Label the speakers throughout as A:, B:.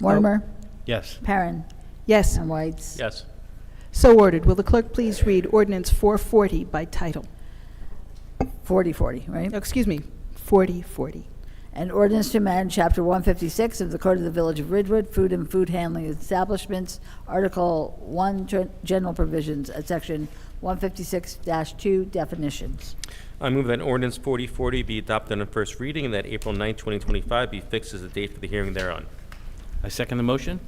A: Mortimer,
B: Yes.
A: Perrin,
C: Yes,
A: and Whites.
B: Yes.
C: so ordered. Will the clerk please read ordinance 440 by title?
A: Forty, forty, right?
C: No, Excuse me, 4040.
A: An ordinance to amend Chapter 156 of the Code of the Village of Ridgewood, Food and Food Handling Establishments, Article 1, Gen- General Provisions, at Section 156-2, Definitions.
D: I move that ordinance 4040 be adopted on first reading and that April 9, 2025 be fixed as the date for the hearing thereon.
B: I second the motion.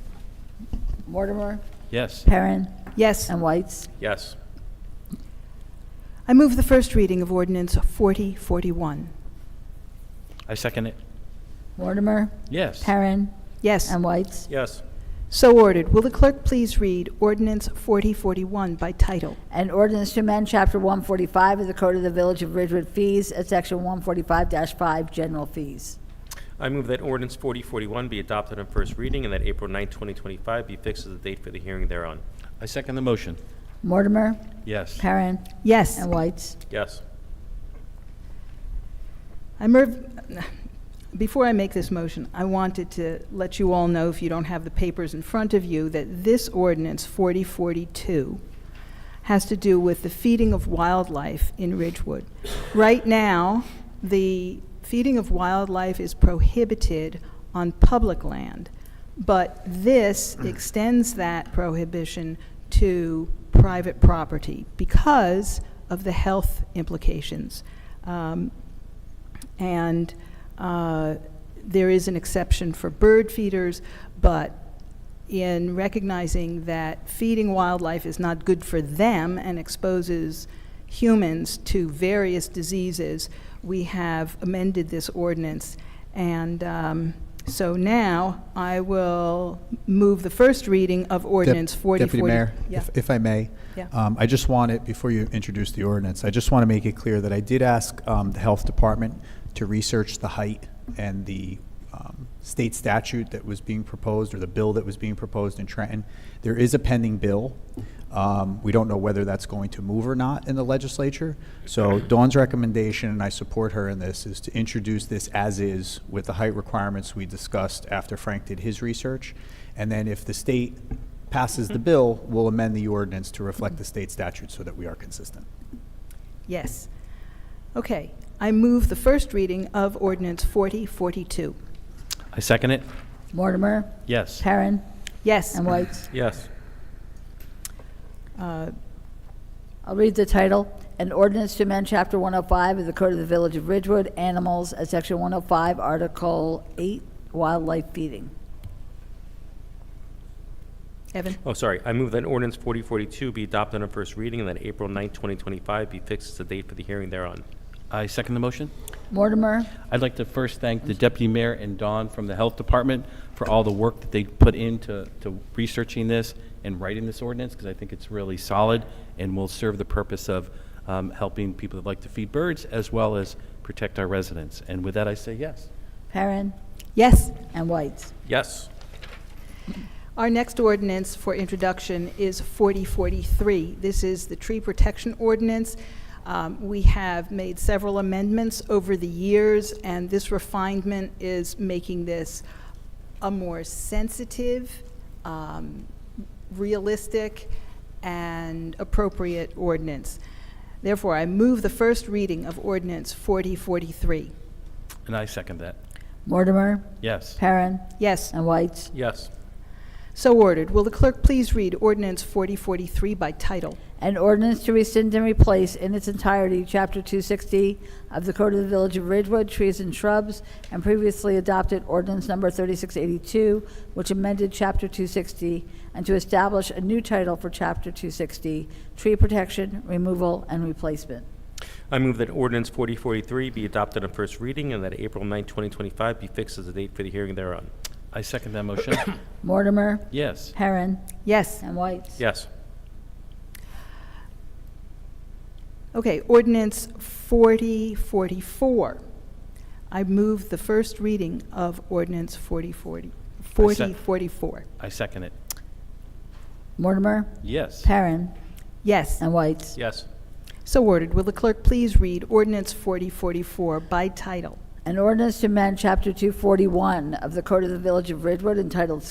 A: Mortimer,
B: Yes.
A: Perrin,
C: Yes,
A: and Whites.
D: Yes.
C: I move the first reading of ordinance 4041.
B: I second it.
A: Mortimer,
B: Yes.
A: Perrin,
C: Yes,
A: and Whites.
D: Yes.
C: so ordered. Will the clerk please read ordinance 4041 by title?
A: An ordinance to amend Chapter 145 of the Code of the Village of Ridgewood Fees, at Section 145-5, General Fees.
D: I move that ordinance 4041 be adopted on first reading and that April 9, 2025 be fixed as the date for the hearing thereon.
B: I second the motion.
A: Mortimer,
B: Yes.
A: Perrin,
C: Yes,
A: and Whites.
D: Yes.
C: I move, before I make this motion, I wanted to let you all know, if you don't have the papers in front of you, that this ordinance 4042 has to do with the feeding of wildlife in Ridgewood. Right now, the feeding of wildlife is prohibited on public land, but this extends that prohibition to private property because of the health implications. Um, and uh, there is an exception for bird feeders, but in recognizing that feeding wildlife is not good for them and exposes humans to various diseases, we have amended this ordinance. And um, so now I will move the first reading of
E: Dep-
C: ordinance 4040.
E: Deputy Mayor,
C: Yeah.
E: if- if I may.
C: Yeah.
E: um, I just want it, before you introduce the ordinance, I just want to make it clear that I did ask um, the Health Department to research the height and the um, state statute that was being proposed, or the bill that was being proposed in Trenton. There is a pending bill. Um, We don't know whether that's going to move or not in the legislature. So Dawn's recommendation, and I support her in this, is to introduce this as is with the height requirements we discussed after Frank did his research. And then if the state passes the bill, we'll amend the ordinance to reflect the state statute so that we are consistent.
C: Yes. Okay, I move the first reading of ordinance 4042.
B: I second it.
A: Mortimer,
B: Yes.
A: Perrin,
C: Yes.
A: and Whites.
D: Yes.
C: Uh,
A: I'll read the title. An ordinance to amend Chapter 105 of the Code of the Village of Ridgewood, Animals, at Section 105, Article 8, Wildlife Feeding.
C: Evan?
D: Oh, sorry. I move that ordinance 4042 be adopted on first reading and that April 9, 2025 be fixed as the date for the hearing thereon.
B: I second the motion.
A: Mortimer,
B: I'd like to first thank the deputy mayor and Don from the health department for all the work that they put into to researching this and writing this ordinance, because I think it's really solid and will serve the purpose of um, helping people that like to feed birds as well as protect our residents. And with that, I say yes.
A: Perrin,
C: Yes.
A: and Whites.
D: Yes.
C: Our next ordinance for introduction is 4043. This is the tree protection ordinance. Um, We have made several amendments over the years, and this refinement is making this a more sensitive, um, realistic, and appropriate ordinance. Therefore, I move the first reading of ordinance 4043.
B: And I second that.
A: Mortimer,
B: Yes.
A: Perrin,
C: Yes,
A: and Whites.
D: Yes.
C: so ordered. Will the clerk please read ordinance 4043 by title?
A: An ordinance to rescind and replace in its entirety Chapter 260 of the Code of the Village of Ridgewood, Trees and Shrubs, and previously adopted ordinance number 3682, which amended Chapter 260, and to establish a new title for Chapter 260, Tree Protection, Removal, and Replacement.
D: I move that ordinance 4043 be adopted on first reading and that April 9, 2025 be fixed as the date for the hearing thereon.
B: I second that motion.
A: Mortimer,
B: Yes.
A: Perrin,
C: Yes.
A: and Whites.
D: Yes.
C: Okay, ordinance 4044. I move the first reading of ordinance 4040 4044.
B: I second it.
A: Mortimer,
B: Yes.
A: Perrin,
C: Yes,
A: and Whites.
D: Yes.
C: so ordered. Will the clerk please read ordinance 4044 by title?
A: An ordinance to amend Chapter 241 of the Code of the Village of Ridgewood entitled